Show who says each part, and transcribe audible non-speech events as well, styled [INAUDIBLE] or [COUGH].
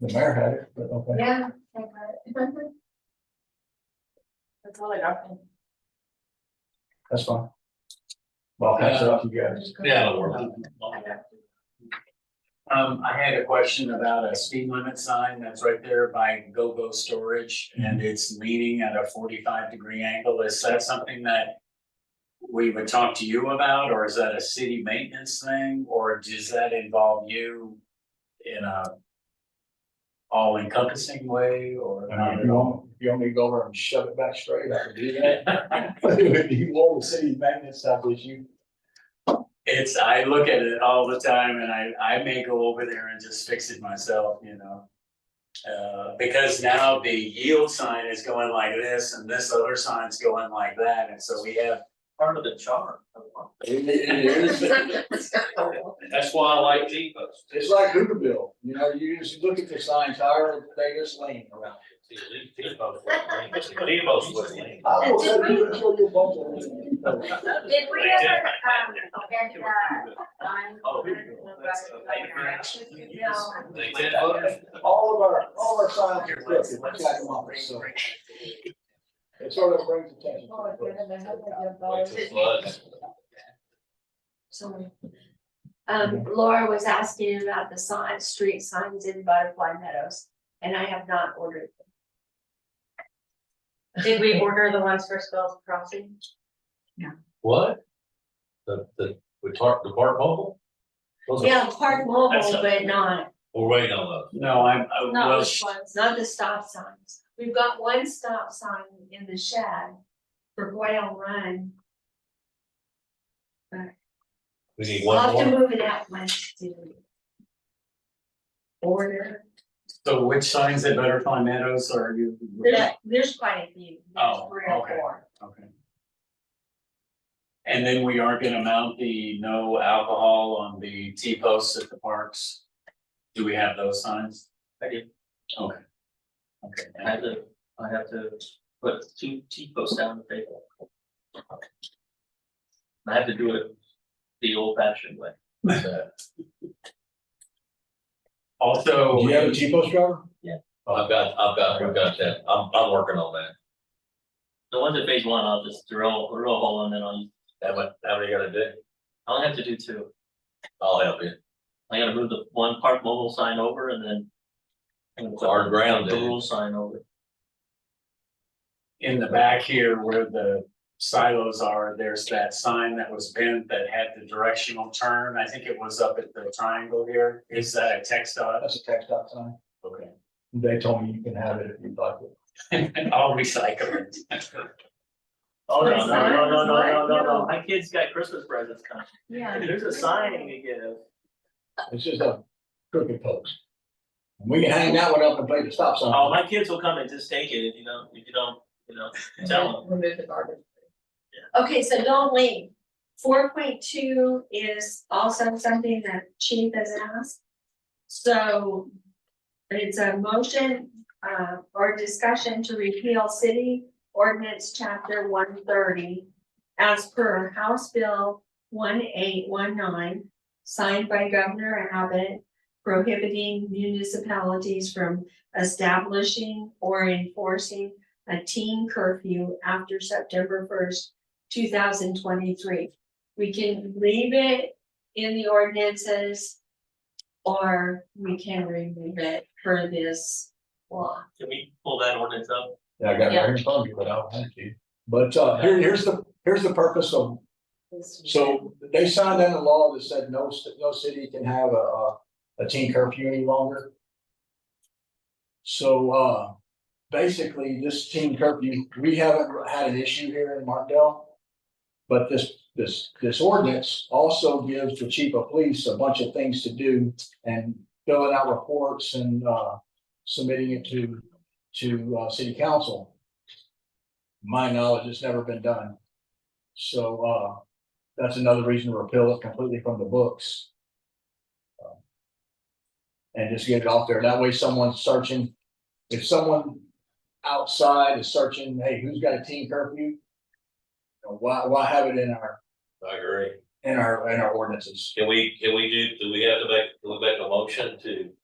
Speaker 1: The mayor had it, but okay.
Speaker 2: Yeah. I got it. That's all I got.
Speaker 1: That's fine. Well, pass it off to you guys.
Speaker 3: Yeah, it'll work.
Speaker 2: I got it.
Speaker 3: Um, I had a question about a speed limit sign that's right there by GoGo Storage
Speaker 1: Mm-hmm.
Speaker 3: and it's leaning at a forty-five degree angle. Is that something that we would talk to you about, or is that a city maintenance thing, or does that involve you in a all encompassing way or?
Speaker 1: I mean, if you want, if you want me to go over and shove it back straight, I can do that. [LAUGHS] But if you want the city magnet stuff, which you,
Speaker 3: It's, I look at it all the time and I, I may go over there and just fix it myself, you know? Uh, because now the yield sign is going like this and this other sign's going like that, and so we have.
Speaker 4: part of the charm.
Speaker 3: It is,
Speaker 4: That's why I like T posts.
Speaker 1: it's like Hooverville, you know, you just look at the signs, however they just laying around.
Speaker 4: See, T posts, T posts was lame.
Speaker 1: I will
Speaker 2: Did
Speaker 1: let you enjoy your bubble.
Speaker 2: Did we
Speaker 4: They did.
Speaker 2: ever, um, get the sign?
Speaker 4: Oh, here you go. That's a paper.
Speaker 2: No.
Speaker 4: They did vote.
Speaker 1: All of our, all of our signs are crooked, we got them off, so it sort of brings attention.
Speaker 5: Oh,
Speaker 1: to the place.
Speaker 4: Wait till it floods.
Speaker 5: Sorry. Um, Laura was asking about the sign, street signs in Butterfly Meadows, and I have not ordered.
Speaker 6: Did we order the ones for Spells Crossing?
Speaker 4: What? The, the, we talked, the park mobile? Those are-
Speaker 5: Yeah, Park Mobile,
Speaker 4: That's a-
Speaker 5: but not,
Speaker 4: We're waiting on those.
Speaker 3: no, I'm, I
Speaker 5: not
Speaker 3: well,
Speaker 5: which ones, not the stop signs. We've got one stop sign in the shed for Boyle Run.
Speaker 4: We need
Speaker 5: I'll
Speaker 4: one
Speaker 5: have to
Speaker 4: more.
Speaker 5: move it out once to order.
Speaker 3: so which signs at Butterfly Meadows are you?
Speaker 5: There's, there's quite a few, there's
Speaker 3: Oh,
Speaker 5: three or
Speaker 3: okay.
Speaker 5: four.
Speaker 3: Okay. And then we are gonna mount the no alcohol on the T posts at the parks. Do we have those signs?
Speaker 4: I do.
Speaker 3: Okay. Okay,
Speaker 4: I have to, I have to put two T posts down the table. I have to do it the old fashioned way.
Speaker 3: also.
Speaker 1: Do you Oh, have a T-post driver?
Speaker 7: I've got, I've got, I've got that, I'm, I'm working on that.
Speaker 4: The ones at phase one, I'll just drill, drill a hole and then I'll,
Speaker 7: How many, how many you gotta do?
Speaker 4: I only have to do two.
Speaker 7: I'll help you.
Speaker 4: I gotta move the one park mobile sign over and then. I'm gonna put
Speaker 7: Hard ground,
Speaker 4: The
Speaker 7: dude.
Speaker 4: rural sign over.
Speaker 3: in the back here where the silos are, there's that sign that was bent that had the directional turn. I think it was up at the triangle here. Is that a text dot?
Speaker 1: That's a text dot sign.
Speaker 3: Okay. [LAUGHS]
Speaker 1: They told me you can have it if you'd like it.
Speaker 3: I'll recycle it.
Speaker 4: Oh,
Speaker 5: What
Speaker 4: no, no,
Speaker 5: is
Speaker 4: no,
Speaker 5: that?
Speaker 4: no, no, no, no,
Speaker 5: No.
Speaker 4: no, my kid's got Christmas presents coming.
Speaker 5: Yeah.
Speaker 4: There's a sign to give.
Speaker 1: It's just a crooked post. We can hang that one up and play the stop sign.
Speaker 7: Uh-huh.
Speaker 4: Oh, my kids will come and just take it if you don't, if you don't, you know, tell them.
Speaker 2: Remove the garbage.
Speaker 5: Okay, so don't leave. Four point two is also something that chief has asked. So it's a motion uh or discussion to repeal city ordinance chapter one thirty as per House Bill one eight one nine, signed by Governor Abbott, prohibiting municipalities from establishing or enforcing a teen curfew after September first two thousand twenty-three. We can leave it in the ordinances. Or we can remove it for this law.
Speaker 4: Can we pull that ordinance up?
Speaker 1: Yeah, I got it right here in front of you, but I'll hand it to you. But uh, here, here's the, here's the purpose of, so they signed in a law that said no, ci- no city can have a, a, a teen curfew any longer. So uh, basically, this teen curfew, we haven't had an issue here in Martindale. But this, this, this ordinance also gives the chief of police a bunch of things to do and filling out reports and uh, submitting it to to uh city council. My knowledge, it's never been done. So uh, that's another reason to repeal it completely from the books. Um, And just get it off there. That way someone's searching, if someone outside is searching, hey, who's got a teen curfew? You know, Why, why have it in our,
Speaker 7: I agree.
Speaker 1: in our, in our ordinances?
Speaker 7: Can we, can we do, do we have to make, do we make a motion to